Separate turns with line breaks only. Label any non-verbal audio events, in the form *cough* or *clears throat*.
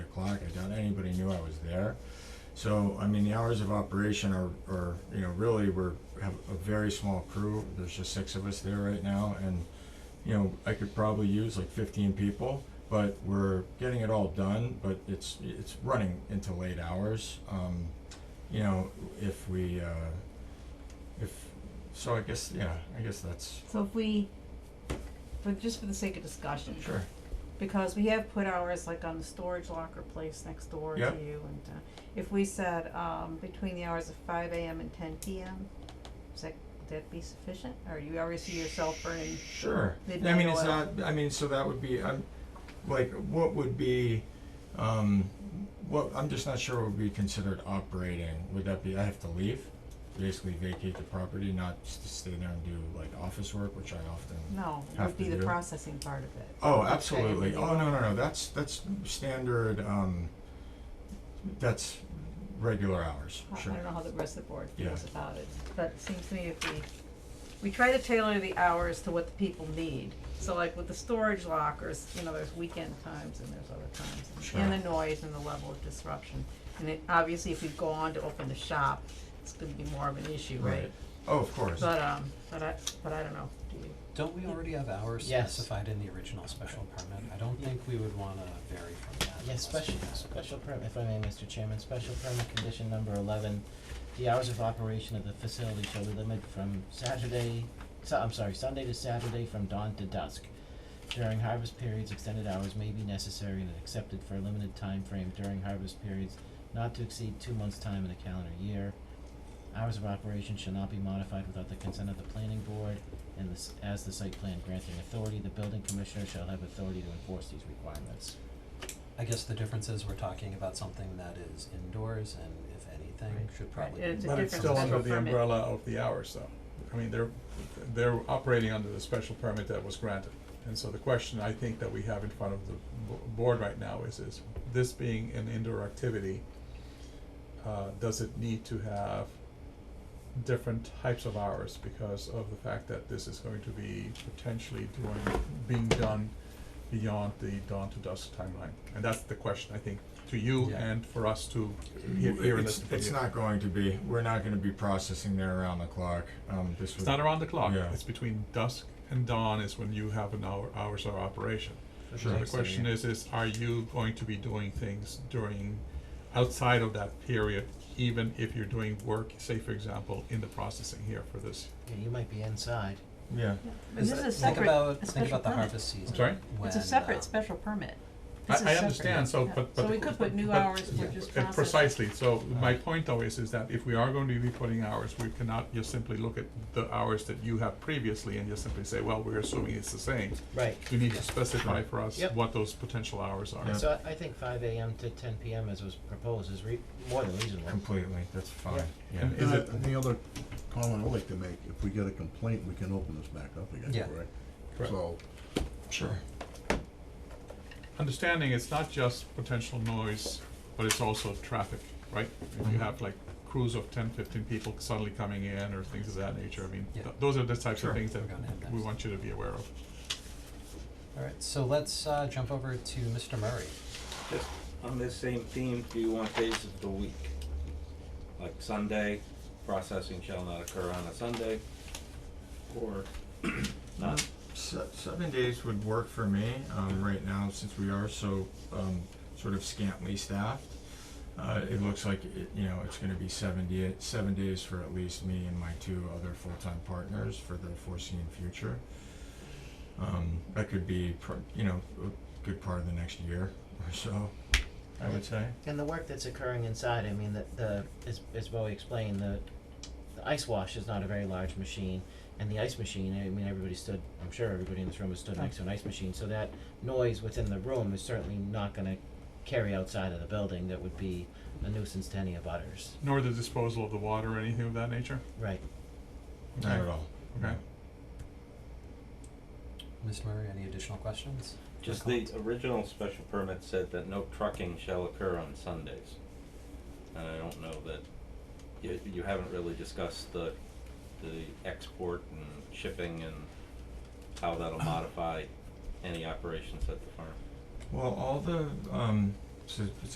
o'clock, I doubt anybody knew I was there. So, I mean, the hours of operation are, are, you know, really, we're, have a very small crew, there's just six of us there right now, and, you know, I could probably use like fifteen people, but we're getting it all done, but it's, it's running into late hours, um, you know, if we, uh, if, so I guess, yeah, I guess that's,
So if we, for, just for the sake of discussion,
sure,
because we have put ours like on the storage locker place next door to you
Yep.
and, uh, if we said, um, between the hours of five AM and ten PM, is that, would that be sufficient? Or you already see yourself burning,
sure. I
Midnight
mean, it's
oil.
not, I mean, so that would be, I'm, like, what would be, um, what, I'm just not sure what would be considered operating. Would that be, I have to leave, basically vacate the property, not s- stay there and do like office work, which I often
no, it
Have
would be
to
the
do.
processing part of it.
Oh,
Which I
absolutely.
believe-
Oh, no, no, no, that's, that's standard, um, that's regular hours,
I-
sure.
I don't know how the rest of the board feels
Yeah.
about it, but it seems to me if we, we try to tailor the hours to what the people need. So like with the storage lockers, you know, there's weekend times and there's other times, and- and the noise and the level of disruption. And it, obviously, if we go on to open the shop, it's gonna be more of an issue, right?
Oh, of course.
But, um, but I, but I don't know, do you?
Don't we already have hours
Yes.
specified in the original special permit? I don't think we would wanna vary from that.
Yes,
unless we
special,
have-
special permit, if I may, Mr. Chairman, special permit condition number eleven, the hours of operation of the facility shall be limited from Saturday, Su- I'm sorry, Sunday to Saturday from dawn to dusk. During harvest periods, extended hours may be necessary and accepted for a limited time frame during harvest periods not to exceed two months' time in a calendar year. Hours of operation shall not be modified without the consent of the planning board and this, as the site plan granting authority, the building commissioner shall have authority to enforce these requirements.
I guess the difference is we're talking about something that is indoors and if anything,
Right.
should probably.
Right, it's a
But it's
different
still under
special
the
permit.
umbrella of the hours though. I mean, they're, they're operating under the special permit that was granted. And so the question I think that we have in front of the bo- board right now is, is this being an indoor activity, uh, does it need to have different types of hours because of the fact that this is going to be potentially doing, being done beyond the dawn to dusk timeline? And that's the question, I think, to you
Yeah.
and for us to hear, hear and
It's,
listen from
it's
you.
not going to be, we're not gonna be processing there around the clock, um, this
It's
would,
not around the clock.
Yeah.
It's between dusk and dawn is when you have an hour, hours of operation.
Sure.
So the question is, is are you going to be doing things during, outside of that period, even if you're doing work, say for example, in the processing here for this?
Yeah, you might be inside.
yeah.
And this is a
Think
separate,
about,
a
think
special
about the
permit.
harvest season.
sorry?
It's a
when,
separate
um,
special permit. This is
I, I
separate.
understand, so,
Yeah.
but, but.
So we
the-
could put new
but-
hours for
yeah,
just
uh,
processing.
Precisely, so
Uh.
my point though is, is that if we are going to be putting hours, we cannot just simply look at the hours that you have previously and just simply say, well, we're assuming it's the same.
Right.
You need to specify for us
Yep.
what those potential hours are.
Yeah.
So I, I think five AM to ten PM as was proposed is re- more than reasonable.
Completely, that's fine, yeah.
And is
Uh,
it-
and the other comment I'd like to make, if we get a complaint, we can open this back up again,
Yeah.
correct?
Correct.
So,
Sure.
Understanding it's not just potential noise, but it's also traffic, right? If you have like crews of 10, 15 people suddenly coming in or things of that nature, I mean,
Yeah.
th- those are the types
Sure.
of things that
We're gonna have
we
next.
want you to be aware of.
Alright, so let's uh jump over to Mr. Murray.
Just on this same theme, do you want days of the week? Like Sunday, processing shall not occur on a Sunday, or *clears throat* not?
Se- seven days would work for me, um, right now, since we are so, um, sort of scantily staffed. Uh, it looks like, it, you know, it's gonna be seventy, seven days for at least me and my two other full-time partners for the foreseen future. Um, that could be, pr- you know, a good part of the next year or so, I would say.
And the work that's occurring inside, I mean, the, the, as, as Bowie explained, the, the ice wash is not a very large machine. And the ice machine, I mean, everybody stood, I'm sure everybody in this room has stood next to an ice machine, so that noise within the room is certainly not gonna carry outside of the building. That would be a nuisance to any abutters.
Nor the disposal of the water or anything of that nature,
Right.
Not
Okay.
at all.
okay?
Ms. Murray, any additional questions? or
Just the
comments?
original special permit said that no trucking shall occur on Sundays. And I don't know that, you, you haven't really discussed the, the export and shipping and how that'll modify any operations at the farm.
Well, all the, um, so it's